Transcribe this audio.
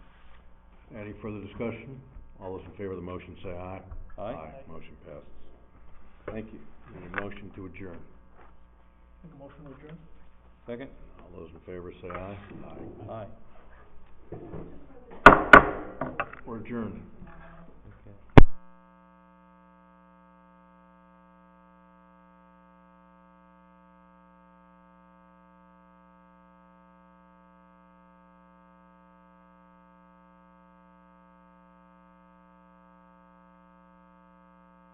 Any further discussion? All those in favor of the motion say aye. Motion passes. Thank you. Need a motion to adjourn. Make a motion to adjourn? Second? All those in favor say aye. Aye. Aye. We're adjourned.